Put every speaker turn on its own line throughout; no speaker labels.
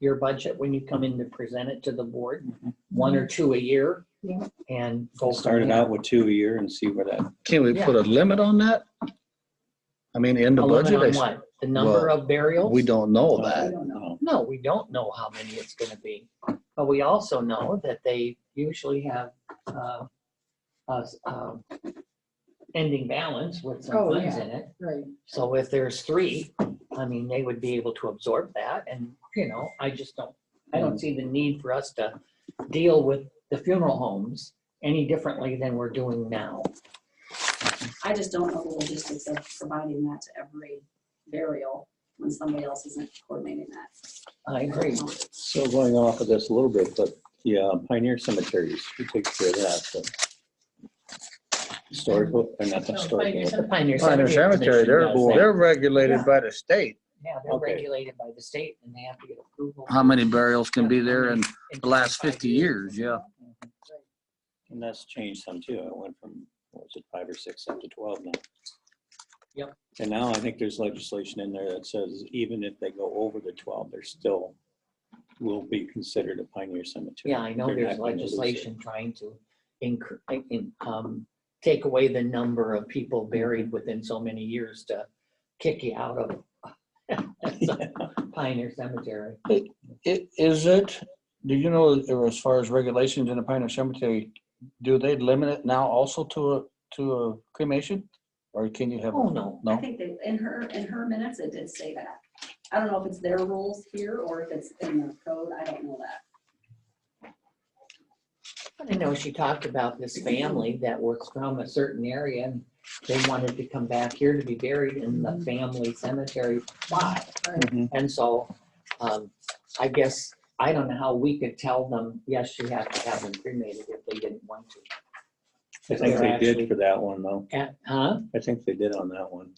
your budget when you come in to present it to the board, one or two a year.
Yeah.
And go. from
Start it
there.
out with two a year and see where that,
Can we put a limit on that? I mean, in the
A limit
budget,
on
I-
what? The number
Well,
of burials?
we don't know
I
that.
don't know.
oh,
No, we don't know how many it's gonna be, but we also know that they usually have, uh, a, uh, ending balance with some
Oh,
funds
yeah.
in it.
Right.
So if there's three, I mean, they would be able to absorb that and, you know, I just don't, I don't see the need for us to deal with the funeral homes any differently than we're doing now.
I just don't know the logistics of providing that to every burial when somebody else isn't coordinating that.
I agree.
so going off of this a little bit, but yeah, Pioneer Cemeteries, who takes care of that? but- Historical, or not the historical,
The Oh, Pioneer
Pioneer Cemetery,
Commission
they're,
does that.
they're regulated by the state.
Yeah, they're
Okay.
regulated by the state and they have to get approval.
How many burials can be there in
in Mm-hmm.
the last
25
50 years, yeah.
and that's changed some too. It went from, what was it, five or six up to 12 now.
Yep.
And now I think there's legislation in there that says even if they go over the 12, they're still, will be considered a Pioneer Cemetery.
Yeah, I know
They're
there's
not gonna lose it.
legislation trying to incre- in- um, take away the number of people buried within so many years to kick you out of Pioneer Cemetery.
I- Is it, do you know, or as far as regulations in the Pioneer Cemetery, do they limit it now also to a, to a cremation? Or can you have,
Oh, no.
I
no?
think they, in her, in her minutes, it did say that. I don't know if it's their rules here or if it's in the code. I don't know that.
I know she talked about this family that was from a certain area and they wanted to come back here to be buried in the family cemetery plot.
Mhm.
And so, um, I guess, I don't know how we could tell them, yes, you have to have them cremated if they didn't want to.
I think
They're
they
actually-
did for that one though.
At- Huh?
I think they did on that one.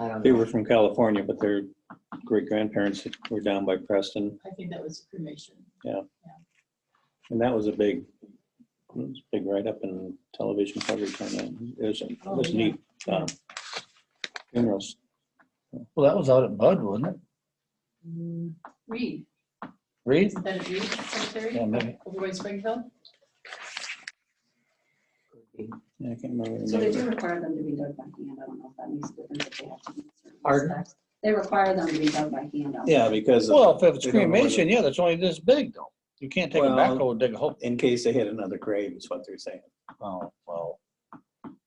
I don't
They
know.
were from California, but their great grandparents were down by Preston,
I think that was cremation.
and that was a big, it was a big write-up and television coverage on that. It was, it was neat. um, Funerals.
Well, that was out at Bud, wasn't it?
Reed,
Reed?
Mm, isn't that a Reed cemetery?
Yeah, maybe.
Over by Springfield?
Yeah, I can't remember. the
So they
name
do
of it.
require them to be dug by hand. I don't know if that makes a difference if they have to. meet certain
Pardon?
specs. They require them to be dug by hand. out
Yeah,
there.
because of-
Well, if it's
We don't know whether-
cremation, yeah, that's only this big though. You can't take a
Well-
backhoe and dig a hole.
in case they hit another grave is what they're saying.
Oh, well.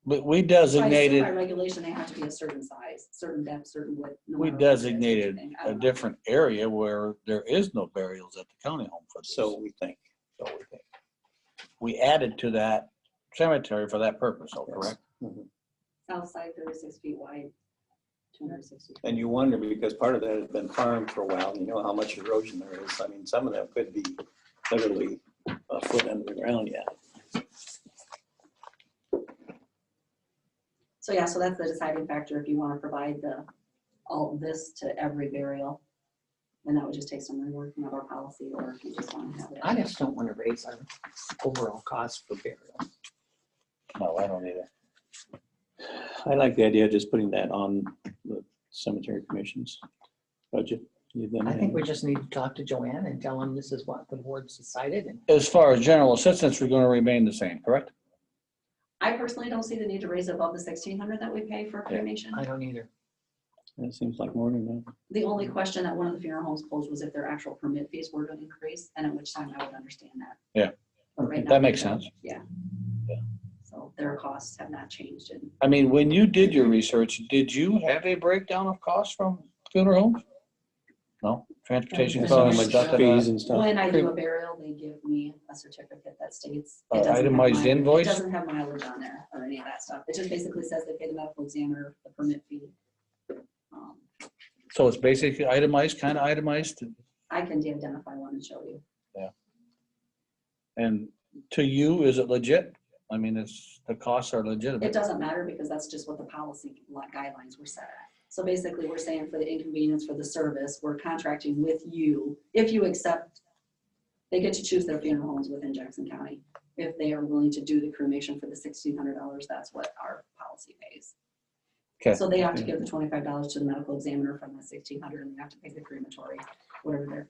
But
By-
we
By
designated
regulation, they have to be a certain size, certain depth, certain width. no
We
matter what it is,
designated
everything. I
a
don't know.
different area where there is no burials at the county home for this.
So we think.
so we think. We added to that cemetery for that purpose, oh, correct?
South side, thirty-six feet wide, two hundred and sixty.
And you wonder because part of that has been farmed for a while, and you know how much erosion there is. I mean, some of that could be literally a foot under the ground yet.
So yeah, so that's the deciding factor if you want to provide the, all this to every burial. Then that would just take some reworking of our policy or if you just want to have it.
I just don't want to raise our overall cost for burial.
No, I don't either.
I like the idea of just putting that on the cemetery commission's budget. You then
I think we
have-
just need to talk to Joanne and tell him this is what the board's decided and
As far as general assistance, we're gonna remain the same, correct?
I personally don't see the need to raise it above the sixteen hundred that we pay for cremation.
I don't either.
That seems like more than that.
The only question that one of the funeral homes posed was if their actual permit fees were going to increase and at which time I would understand that.
Yeah.
But right now,
That makes sense.
Yeah.
Yeah.
So their costs have not changed and
I mean, when you did your research, did you have a breakdown of costs from funeral homes? No, transportation
There's
How
no
costs,
much
stuff
restriction.
like that?
fees and stuff.
When I do a burial, they give me a certificate that states. it
Uh,
doesn't have
itemized
mileage-
invoice?
It doesn't have mileage on there or any of that stuff. It just basically says they pay the medical examiner the permit fee. Um,
So it's basically itemized, kind of itemized,
I can de-identify one and show you.
and to you, is it legit? I mean, it's, the costs are legitimate.
It doesn't matter because that's just what the policy li- guidelines were set at. So basically, we're saying for the inconvenience for the service, we're contracting with you. If you accept, they get to choose their funeral homes within Jackson County. If they are willing to do the cremation for the sixteen hundred dollars, that's what our policy pays.
Okay.
So they have to give the twenty-five dollars to the medical examiner from the sixteen hundred and they have to pay the crematory, whatever their